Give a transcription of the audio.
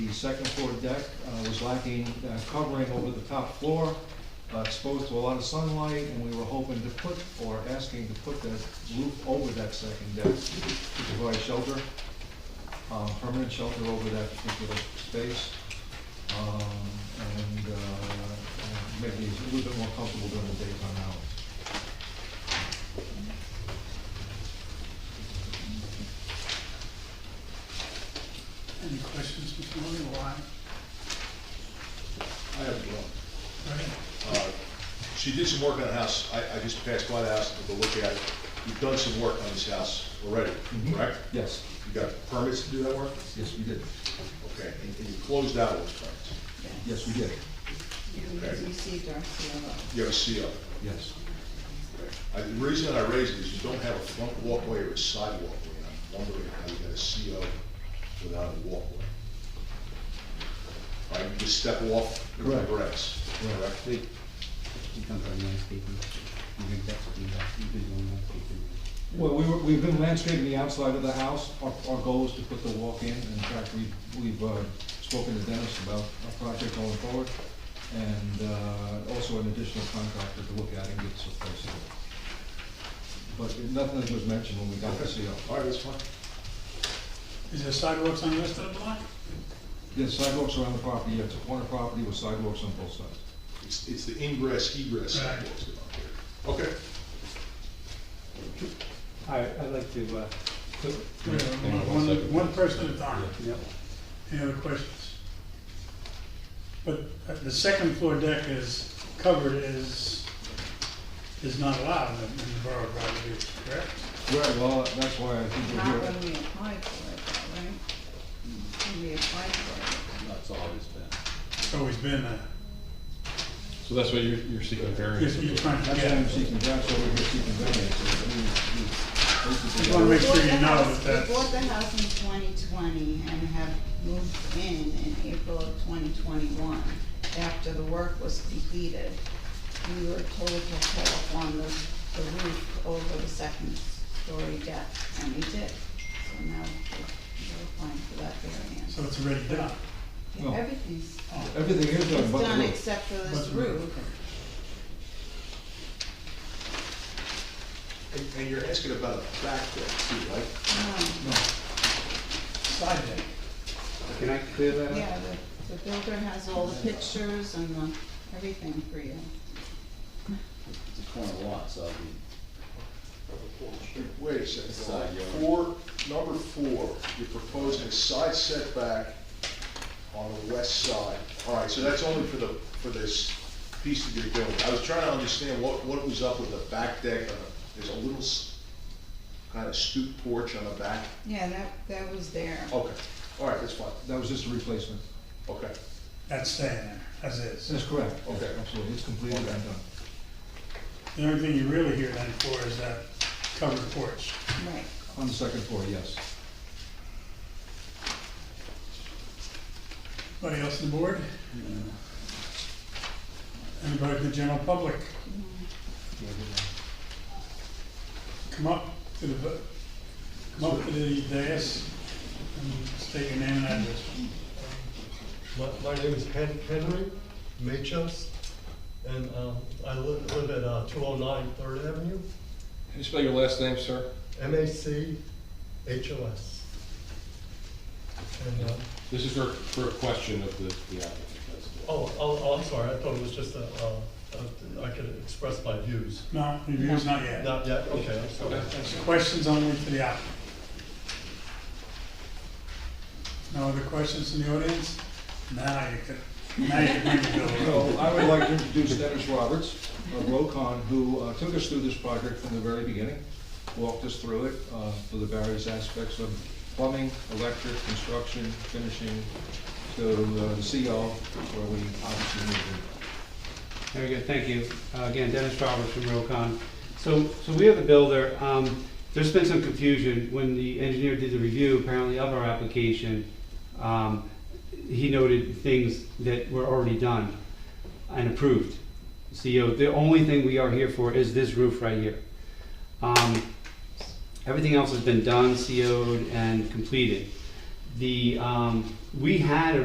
the second floor deck uh, was lacking uh, covering over the top floor, uh, exposed to a lot of sunlight, and we were hoping to put, or asking to put that roof over that second deck to provide shelter, um, permanent shelter over that particular space. um, And uh, and maybe it's a little bit more comfortable during the daytime hours. Any questions, Mr. Murray, why? I have one. Right. Uh, She did some work on the house, I, I just passed by the house to look at it. You've done some work on this house already, Mhm. correct? Yes, You got permits to do that work? yes, we did. Okay, and and you closed out those permits. Yes, we did. Okay. You received our CLO. You have a CO. Yes. I- The reason I raised it is you don't have a front walkway or a side walkway. and I'm wondering how you got a CO without a walkway. Right, you just step off the Correct. grass, correct? He comes on landscaping, you think that's what you got, you've been doing landscaping. Well, we were, we've been landscaping the outside of the house. Our, our goal is to put the walk in. In fact, we, we've uh, spoken to Dennis about our project going forward. And, uh, also an additional contractor to look at and get some prices. But nothing was mentioned when we got the CO. All right, that's fine. Is there sidewalks on the rest of the block? There's sidewalks around the property, it's a corner property with sidewalks on both sides. It's, it's the ingress, egress Right. sidewalks that are here. Okay. All right, I'd like to, uh, put, One, one- one person at a time. yep, Any other questions? But uh, the second floor deck is covered is, is not allowed in the- in the borough of Rogers, correct? Right, well, that's why I think we're Not here. when we applied for it, though, right? When we applied for That's always been. It's always been a, So that's why you're, you're seeking variance. you're trying to That's why get. I'm seeking, that's why we're here seeking variance. We- we- I wanna it. make sure We you bought the know house- that that's- We bought the house in twenty twenty and have moved in in April of twenty twenty-one. After the work was completed, we were told to haul on the, the roof over the second story deck, and we did. So now we're we're applying for that variance. So it's already done. No. Everything's Everything is done It's but the done roof. except for this But the roof. roof. And, and you're asking about a back deck too, right? Um, Side deck. can I clear that up? Yeah, the, the builder has all the pictures and the, everything for you. It's a corner lot, so it'd be Wait a It's second, side yard. four, number four, you're proposing a side setback on the west side. All right, so that's only for the, for this piece that you're doing. I was trying to understand what, what was up with the back deck, on the- there's a little s- kind of stoop porch on the back. Yeah, that, that was there. Okay, all right, that's fine, That was just a replacement. okay. That's staying there, as is. That's correct. Okay. Absolutely, it's completed and done. The only thing you really hear then for is that covered porch. Right. On the second floor, yes. Anybody else on the board? Anybody in the general public? Come up to the, bu- come up to the dais and state your name and address. My, my name is Hen- Henry Machos, and um, I live, live at uh, 209 Third Avenue, Can you spell your last name, sir? M A C H O S. And, uh, This is for, for a question of the, the applicant. that's all. oh, oh, oh, I'm sorry, I thought it was just a, uh, a- I could express my views. No, review's not yet. Not yet, okay, I'm sorry. Questions only to the applicant. No other questions in the audience? Now you can, now you can bring the bill. So I would like to introduce Dennis Roberts of Rokon, who uh, took us through this project from the very beginning, walked us through it, uh, through the various aspects of plumbing, electric, construction, finishing, to uh, the CO, where we obviously need to. Very good, thank you. Uh, Again, Dennis Roberts from Realcon. So, so we are the builder. Um, There's been some confusion when the engineer did the review, apparently, of our application. um, He noted things that were already done and approved. CEO, the only thing we are here for is this roof right here. Um, Everything E else has been done, CO'd, and completed. The, um, we had a